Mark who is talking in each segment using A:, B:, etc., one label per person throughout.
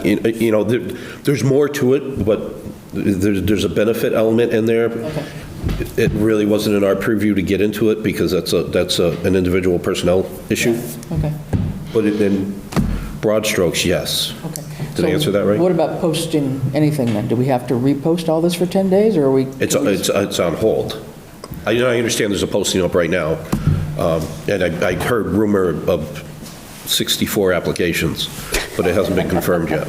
A: you you know, there- there's more to it, but there's, there's a benefit element in there. It really wasn't in our purview to get into it because that's a, that's a, an individual personnel issue.
B: Okay,
A: But in broad strokes, yes.
B: okay.
A: Did I answer that
B: So What
A: right?
B: about posting anything then? Do we have to repost all this for 10 days, or are we?
A: It's, it's, it's on hold. I, you know, I understand there's a posting up right now, um, and I, I heard rumor of 64 applications, but it hasn't been confirmed yet.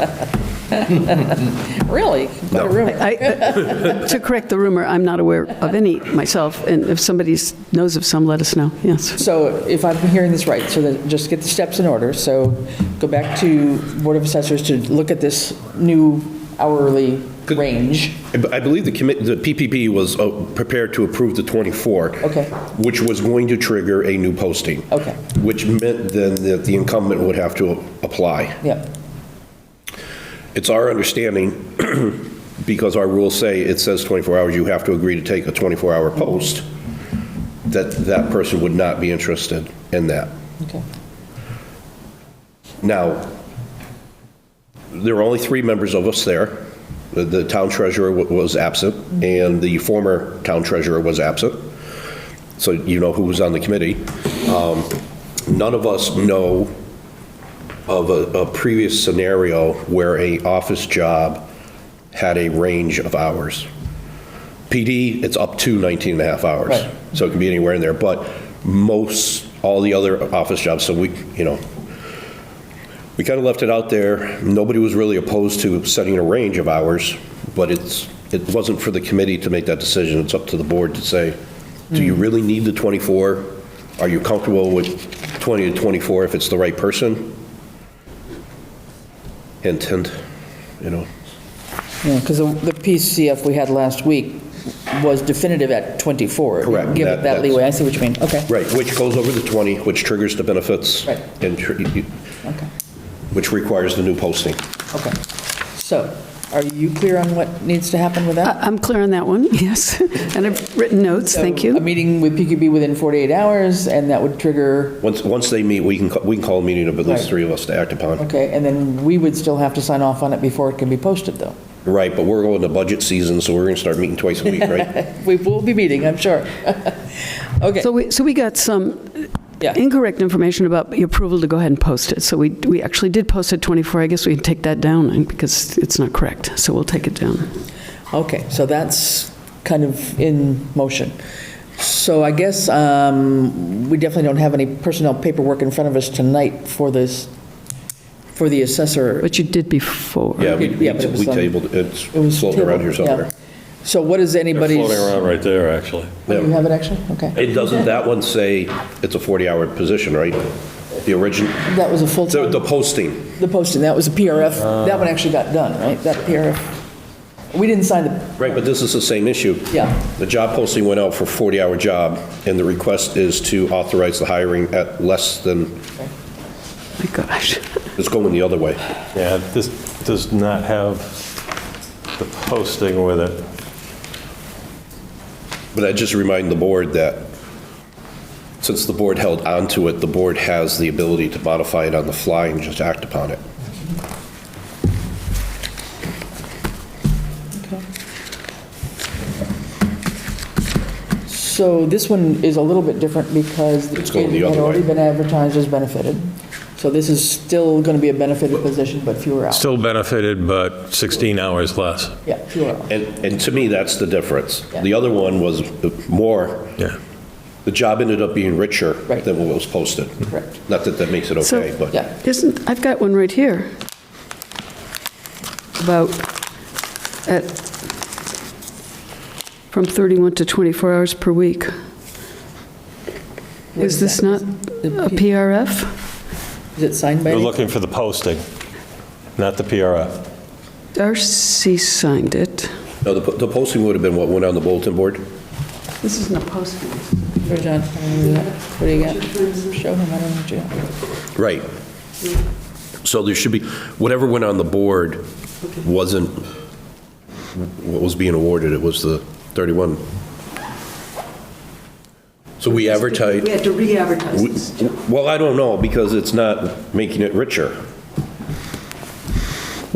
B: Really? What a
A: No.
B: rumor.
C: I- I- To correct the rumor, I'm not aware of any myself, and if somebody knows of some, let us know, yes.
B: So if I'm hearing this right, so that, just get the steps in order. So go back to Board of Assessors to look at this new hourly
A: Good.
B: range.
A: I b- I believe the commit, the PPP was uh, prepared to approve the 24.
B: Okay.
A: Which was going to trigger a new posting.
B: Okay.
A: Which meant then that the incumbent would have to apply.
B: Yep,
A: It's our understanding, because our rules say it says 24 hours, you have to agree to take a 24-hour post, that that person would not be interested in that.
B: okay.
A: Now, there were only three members of us there. The- The town treasurer wa- was absent, and the former town treasurer was absent, so you know who was on the committee. Um, None of us know of a a previous scenario where a office job had a range of hours. PD, it's up to 19 and a half hours.
B: Right.
A: So it can be anywhere in there, but most, all the other office jobs, so we, you know, we kind of left it out there. Nobody was really opposed to setting a range of hours, but it's, it wasn't for the committee to make that decision. It's up to the board to say, do you really need the 24? Are you comfortable with 20 to 24 if it's the right person? Hint, hint, you know.
B: Yeah, because the the PCF we had last week was definitive at 24. It
A: Correct.
B: didn't Give
A: That-
B: it that
A: that's-
B: leeway, I see what you mean, okay.
A: Right, which goes over the 20, which triggers the benefits.
B: Right.
A: And, tr-
B: Okay,
A: which requires the new posting.
B: okay. So are you clear on what needs to happen with that?
C: I- I'm clear on that one, yes, and I've written notes, thank
B: So A
C: you.
B: meeting with PQB within 48 hours, and that would trigger,
A: Once, once they meet, we can, ca- we can call a meeting of at least
B: Right.
A: three of us to act upon.
B: okay, and then we would still have to sign off on it before it can be posted, though.
A: Right, but we're going to budget season, so we're going to start meeting twice a week, right?
B: We will be meeting, I'm sure. Okay,
C: So we, so we got some
B: yeah,
C: incorrect information about the approval to go ahead and post it, so we, we actually did post it 24, I guess we can take that down, because it's not correct, so we'll take it down.
B: okay, so that's kind of in motion. So I guess um, we definitely don't have any personnel paperwork in front of us tonight for this, for the assessor.
C: But you did before.
A: Yeah, we, we
B: Yeah, but it was
A: we
B: on-
A: tabled, it.
B: It was
A: it's floating around here
B: tabled, yeah.
A: somewhere.
B: So what is
D: They're
B: anybody's?
D: floating around right there, actually.
B: Oh, You
A: Yeah.
B: have it actually? Okay.
A: It doesn't, that one say it's a 40-hour position, right? The origin,
B: That was a full,
A: the,
B: the
A: the posting,
B: posting, that was a
A: Uh.
B: PRF. That one actually got done, right? That PRF. We didn't sign the,
A: right, but this is the same issue.
B: Yeah.
A: The job posting went out for 40-hour job, and the request is to authorize the hiring at less than,
C: My gosh.
A: it's going the other way.
D: Yeah, this does not have the posting with it.
A: But I just remind the board that since the board held onto it, the board has the ability to modify it on the fly and just act upon it.
B: so this one is a little bit different because
A: It's
B: it
A: going the
B: had
A: other way.
B: already been advertised as benefited. So this is still going to be a benefited position, but fewer hours.
D: Still benefited, but 16 hours less.
B: Yeah, fewer hours.
A: And, and to me, that's the difference.
B: Yeah.
A: The other one was more,
D: Yeah.
A: the job ended up being richer
B: Right.
A: than what was posted.
B: Correct.
A: Not that that makes it
C: So-
A: okay, but.
B: Yeah.
C: Isn't, I've got one right here about, at, from 31 to 24 hours per week. Is this not a PRF?
B: Is it signed by?
D: They're
B: any-
D: looking for the posting, not the PRF.
C: RC signed it.
A: No, the the posting would have been what went on the bulletin board?
C: This isn't a posting.
B: Sure, John, what do you got? Show him, I don't know what you got.
A: Right. So there should be, whatever went on the board wasn't what was being awarded, it was the 31. So we advertise.
C: had to re-advertise
A: We- Well, I don't know, because it's not making it richer.